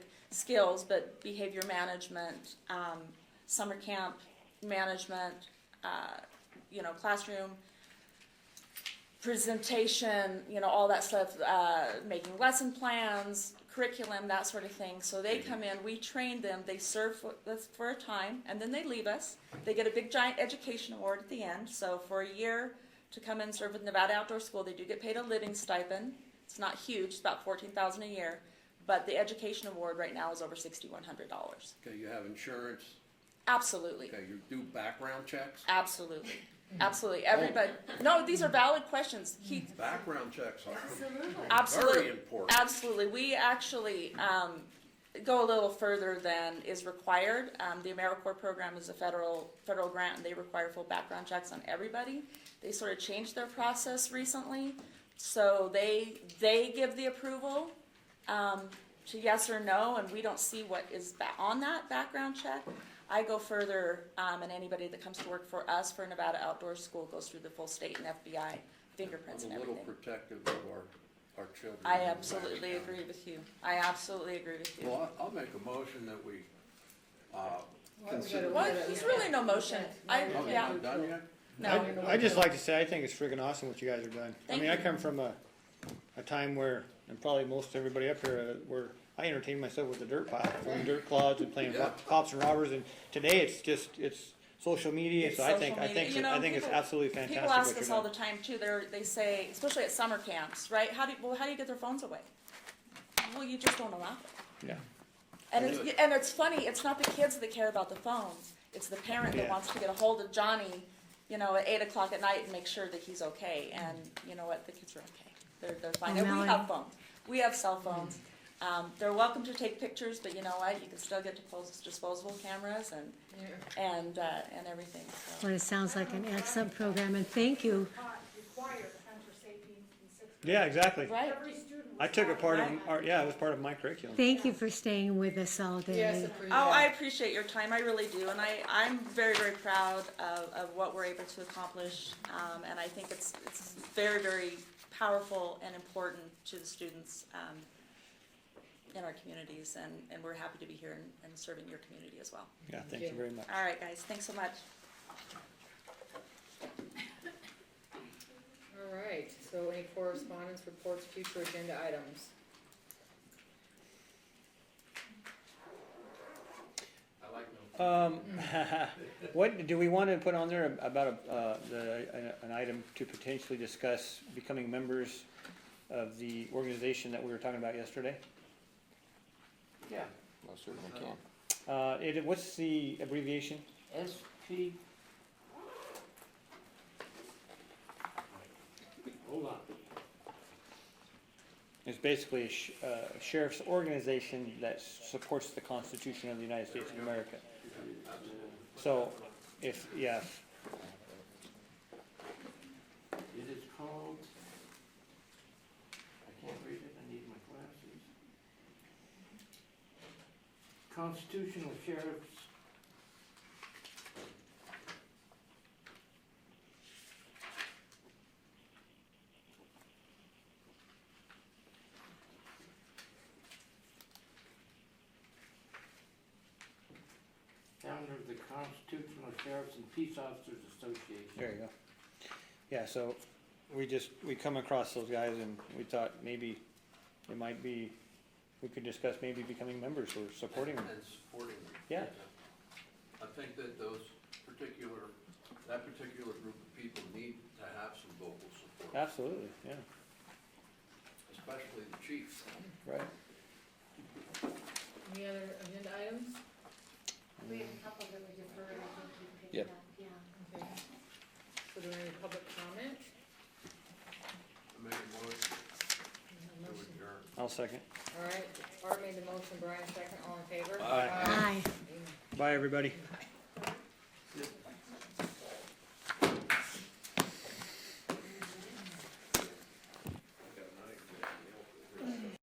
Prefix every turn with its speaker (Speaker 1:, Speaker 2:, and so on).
Speaker 1: skills, but behavior management, um, summer camp management, uh, you know, classroom presentation, you know, all that stuff, uh, making lesson plans, curriculum, that sort of thing. So they come in, we train them, they serve for, that's for a time, and then they leave us. They get a big giant education award at the end. So for a year to come and serve with Nevada Outdoor School, they do get paid a living stipend. It's not huge, it's about fourteen thousand a year, but the education award right now is over sixty-one hundred dollars.
Speaker 2: Okay, you have insurance,
Speaker 1: Absolutely.
Speaker 2: okay, you do background checks?
Speaker 1: Absolutely. Absolutely. Everybody, no, these are valid questions. He,
Speaker 2: Background checks are
Speaker 3: Absolutely.
Speaker 1: Absolutely.
Speaker 2: very important.
Speaker 1: Absolutely. We actually um, go a little further than is required. Um, the AmeriCorps program is a federal, federal grant, and they require full background checks on everybody. They sort of changed their process recently, so they, they give the approval um, to yes or no, and we don't see what is ba- on that background check. I go further, um, and anybody that comes to work for us for Nevada Outdoor School goes through the full state and FBI fingerprints and
Speaker 2: I'm a
Speaker 1: everything.
Speaker 2: little protective of our, our children.
Speaker 1: I
Speaker 2: in the
Speaker 1: absolutely
Speaker 2: Nevada
Speaker 1: agree with you. I absolutely agree with
Speaker 2: County.
Speaker 1: you.
Speaker 2: Well, I- I'll make a motion that we, uh,
Speaker 3: we
Speaker 2: consider.
Speaker 3: gotta-
Speaker 1: Well, there's really no motion. I,
Speaker 2: Oh, you
Speaker 1: yeah,
Speaker 2: haven't done yet?
Speaker 1: no.
Speaker 4: I just like to say, I think it's friggin' awesome what you guys have done. I
Speaker 1: Thank
Speaker 4: mean, I
Speaker 1: you.
Speaker 4: come from a, a time where, and probably most everybody up here, uh, where I entertained myself with the dirt pile, throwing dirt clods and playing
Speaker 2: Yeah.
Speaker 4: cops and robbers, and today it's just, it's social media,
Speaker 1: It's
Speaker 4: so I think,
Speaker 1: social
Speaker 4: I
Speaker 1: media.
Speaker 4: think,
Speaker 1: You
Speaker 4: I
Speaker 1: know,
Speaker 4: think it's
Speaker 1: people-
Speaker 4: absolutely fantastic
Speaker 1: People
Speaker 4: what
Speaker 1: ask
Speaker 4: you're
Speaker 1: us all the
Speaker 4: doing.
Speaker 1: time too. They're, they say, especially at summer camps, right? How do, well, how do you get their phones away? Well, you just don't allow it.
Speaker 4: Yeah,
Speaker 1: And it's, and it's funny, it's not the kids that care about the phones. It's the parent that
Speaker 4: Yeah.
Speaker 1: wants to get a hold of Johnny, you know, at eight o'clock at night and make sure that he's okay. And you know what? The kids are okay. They're, they're fine. And we
Speaker 5: Melanie.
Speaker 1: have phones. We have cell phones. Um, they're welcome to take pictures, but you know what? You can still get dipos- disposable cameras and and uh, and everything. So.
Speaker 5: Well, it sounds like an excellent program, and thank you.
Speaker 6: taught required hunter safety in sixth grade.
Speaker 4: yeah, exactly.
Speaker 1: Right.
Speaker 6: Every student was
Speaker 4: I took a
Speaker 6: taught
Speaker 4: part of,
Speaker 6: that.
Speaker 4: our- yeah, it was part of my curriculum.
Speaker 5: Thank you for staying with us all
Speaker 3: Yes,
Speaker 5: day.
Speaker 3: approve.
Speaker 1: Oh, I appreciate your time. I really do, and I I'm very very proud of, of what we're able to accomplish. Um, and I think it's it's very very powerful and important to the students um, in our communities, and and we're happy to be here and, and serving your community as well.
Speaker 4: Yeah, thank you
Speaker 3: you.
Speaker 4: very much.
Speaker 1: All right, guys. Thanks so much.
Speaker 3: All right, so any correspondence, reports, future agenda items?
Speaker 4: Um, what, do we wanna put on there about, a- uh, the, an- an item to potentially discuss becoming members of the organization that we were talking about yesterday?
Speaker 7: Yeah,
Speaker 2: Most certainly
Speaker 7: can.
Speaker 4: Uh, it, what's the abbreviation?
Speaker 7: SP. Hold on.
Speaker 4: It's basically a sh- uh, sheriff's organization that s- supports the Constitution of the United States of America. So, if, yeah,
Speaker 7: It is called, I can't read it, I need my glasses. Constitutional Sheriff's. Founder of the Constitutional Sheriffs and Peace Officers Association.
Speaker 4: there you go. Yeah, so, we just, we come across those guys and we thought maybe it might be, we could discuss maybe becoming members or supporting them.
Speaker 2: And supporting them.
Speaker 4: Yeah.
Speaker 2: I think that those particular, that particular group of people need to have some vocal support,
Speaker 4: Absolutely, yeah,
Speaker 2: especially the chief.
Speaker 4: right.
Speaker 3: Any other agenda items?
Speaker 6: We have a couple that were deferred, I think we picked
Speaker 7: Yep.
Speaker 6: up, yeah.
Speaker 3: Okay. So do we have any public comment?
Speaker 2: I make a motion
Speaker 3: No
Speaker 2: to
Speaker 3: motion.
Speaker 2: adjourn.
Speaker 4: I'll second.
Speaker 3: All right, Art made the motion, Brian second, all in favor?
Speaker 2: Aye.
Speaker 5: Aye.
Speaker 4: Bye, everybody.
Speaker 3: Aye.